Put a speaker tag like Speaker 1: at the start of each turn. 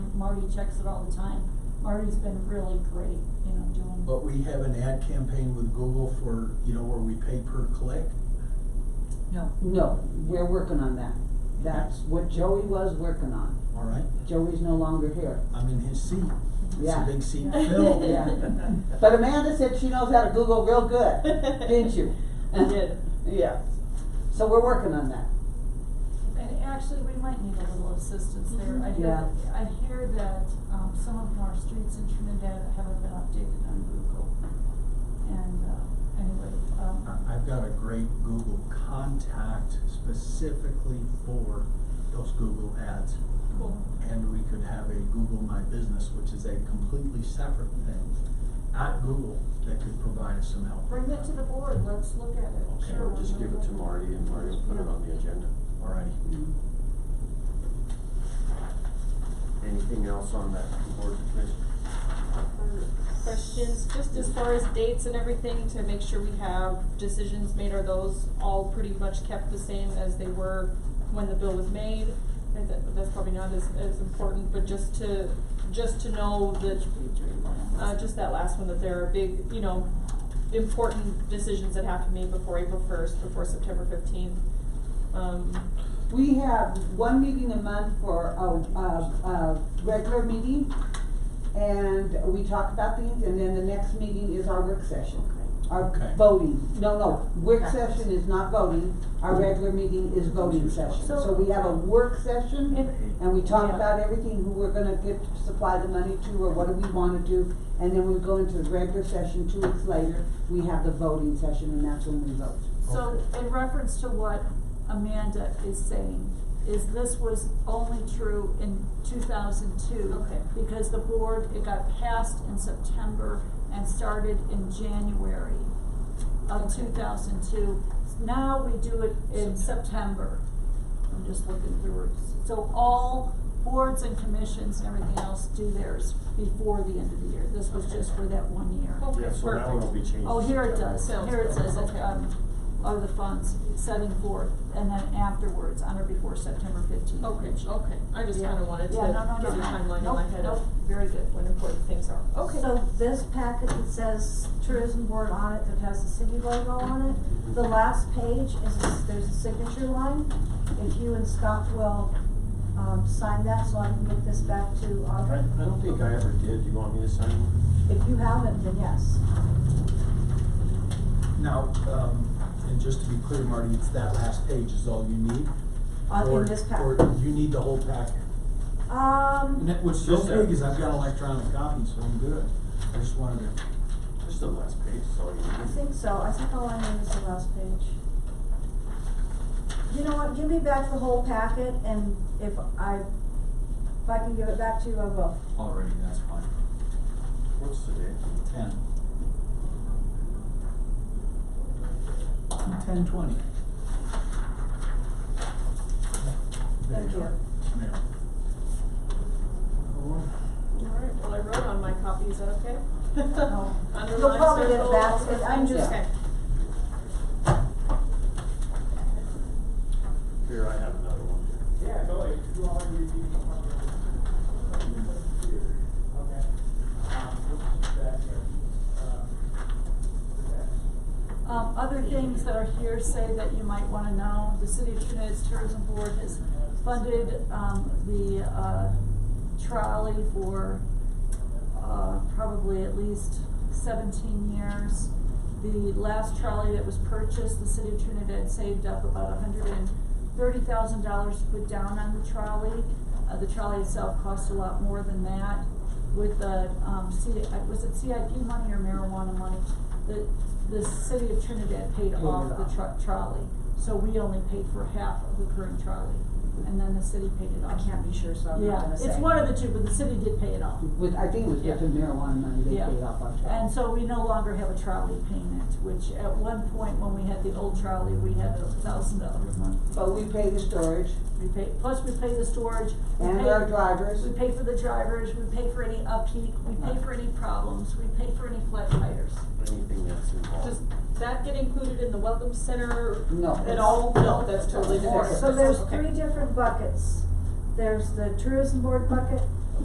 Speaker 1: Marty checks it all the time. Marty's been really great, you know, doing.
Speaker 2: But we have an ad campaign with Google for, you know, where we pay per click.
Speaker 1: No.
Speaker 3: No, we're working on that. That's what Joey was working on.
Speaker 2: All right,
Speaker 3: Joey's no longer here.
Speaker 2: I'm in his seat. It's a
Speaker 3: Yeah.
Speaker 2: big seat to fill.
Speaker 3: Yeah. But Amanda said she knows how to Google real good, didn't you?
Speaker 4: I did.
Speaker 3: Yeah. So we're working on that.
Speaker 1: And actually, we might need a little assistance
Speaker 4: Mm-hmm.
Speaker 1: there. I
Speaker 3: Yeah.
Speaker 1: hear, I hear that, um, some of our streets in Trinidad haven't been updated on Google. And, uh, anyway, um,
Speaker 2: I- I've got a great Google contact specifically for those Google ads.
Speaker 1: cool.
Speaker 2: And we could have a Google My Business, which is a completely separate thing at Google that could provide us some help.
Speaker 1: Bring it to the board, let's look at it.
Speaker 5: Okay,
Speaker 1: Sure,
Speaker 5: we'll just
Speaker 1: we'll
Speaker 5: give it
Speaker 1: look
Speaker 5: to
Speaker 1: at
Speaker 5: Marty and Marty will put it on the agenda.
Speaker 2: All righty.
Speaker 5: Anything else on that board commission?
Speaker 4: Questions, just as far as dates and everything, to make sure we have decisions made, are those all pretty much kept the same as they were when the bill was made? And that, that's probably not as, as important, but just to, just to know that, uh, just that last one, that there are big, you know, important decisions that have to be made before April first, before September fifteenth. Um,
Speaker 3: We have one meeting a month for a, a, a regular meeting. And we talk about things and then the next meeting is our work session.
Speaker 2: Okay.
Speaker 3: Our voting, no, no, work
Speaker 4: Okay.
Speaker 3: session is not voting, our regular meeting is voting session.
Speaker 1: So-
Speaker 3: So we have a work session
Speaker 1: If-
Speaker 3: and we talk
Speaker 4: Yeah.
Speaker 3: about everything, who we're gonna get to supply the money to, or what do we wanna do. And then we go into the regular session two weeks later, we have the voting session and that's when we vote.
Speaker 1: So in reference to what Amanda is saying, is this was only true in two thousand two.
Speaker 4: Okay.
Speaker 1: Because the board, it got passed in September and started in January of
Speaker 4: Okay.
Speaker 1: two thousand two. Now we do it in
Speaker 4: September.
Speaker 1: September.
Speaker 4: I'm just looking through it.
Speaker 1: So all boards and commissions and everything else do theirs before the end of the year. This was
Speaker 5: Okay.
Speaker 1: just for that one year.
Speaker 4: Okay,
Speaker 5: Yeah, so that one will be changed.
Speaker 1: Oh, here it
Speaker 5: to
Speaker 1: does,
Speaker 5: September.
Speaker 1: here it says,
Speaker 4: Okay.
Speaker 1: um, of the funds setting forth, and then afterwards, on or before September fifteenth.
Speaker 4: Okay, okay, I just kinda wanted to
Speaker 1: Yeah, no, no, no,
Speaker 4: get the
Speaker 1: no.
Speaker 4: timeline in my
Speaker 1: Nope,
Speaker 4: head of
Speaker 1: nope. Very good.
Speaker 4: when important things are, okay.
Speaker 6: So this packet that says tourism board on it, that has the city logo on it, the last page is, there's a signature line. If you and Scott will, um, sign that, so I can get this back to
Speaker 5: I,
Speaker 6: Aubrey.
Speaker 5: I don't think I ever did, you want me to sign one?
Speaker 6: If you haven't, then yes.
Speaker 2: Now, um, and just to be clear, Marty, it's that last page is all you need?
Speaker 6: On- in
Speaker 2: Or-
Speaker 6: this pack.
Speaker 2: Or you need the whole packet? And
Speaker 6: Um,
Speaker 2: that, what's
Speaker 5: Just
Speaker 2: so
Speaker 5: that-
Speaker 2: big is I've got electronic copies, so I'm good. I just wanted to.
Speaker 5: Just the last page, so you
Speaker 6: I
Speaker 5: need.
Speaker 6: think so, I think all I need is the last page. You know what, give me back the whole packet, and if I, if I can give it back to you, I will.
Speaker 2: Already, that's fine.
Speaker 5: What's the date?
Speaker 2: Ten. Ten twenty. There
Speaker 6: Thank you.
Speaker 2: are. There.
Speaker 4: Alright, well, I wrote on my copy, is that okay?
Speaker 6: Oh. You'll
Speaker 4: Underline,
Speaker 6: probably get it
Speaker 4: circle,
Speaker 6: back,
Speaker 4: all those
Speaker 6: I'm
Speaker 4: things,
Speaker 6: just-
Speaker 4: okay.
Speaker 5: Here, I have another one.
Speaker 7: Yeah, go ahead. You all agree with me. Okay. Um, what's that here? Uh, what's that?
Speaker 1: Um, other things that are here say that you might wanna know, the City of Trinidad's Tourism Board has funded, um, the, uh, trolley for, uh, probably at least seventeen years. The last trolley that was purchased, the City of Trinidad saved up about hundred and thirty thousand dollars to put down on the trolley. Uh, the trolley itself cost a lot more than that with the, um, C, uh, was it CIP money or marijuana money? The, the city of Trinidad paid off the tro- trolley, so we only paid for half of the current trolley, and then the city paid it
Speaker 6: I
Speaker 1: off.
Speaker 6: can't be sure, so I'm not
Speaker 1: Yeah,
Speaker 6: gonna say.
Speaker 1: it's one of the two, but the city did pay it off.
Speaker 3: With, I think it was with the marijuana money they
Speaker 1: Yeah.
Speaker 3: paid off our tax.
Speaker 1: And so we no longer have a trolley payment, which at one point when we had the old trolley, we had a thousand dollars a month.
Speaker 3: But we pay the storage
Speaker 1: We pay, plus we pay the storage, we
Speaker 3: and
Speaker 1: pay-
Speaker 3: our drivers.
Speaker 1: We pay for the drivers, we pay for any upkeep, we pay for any problems, we pay for any flat tires.
Speaker 5: Anything that's involved.
Speaker 4: Does that get included in the welcome center
Speaker 3: No.
Speaker 4: at all? No, that's totally
Speaker 3: Or-
Speaker 4: different.
Speaker 6: So there's
Speaker 4: Okay.
Speaker 6: three different buckets. There's the tourism board bucket,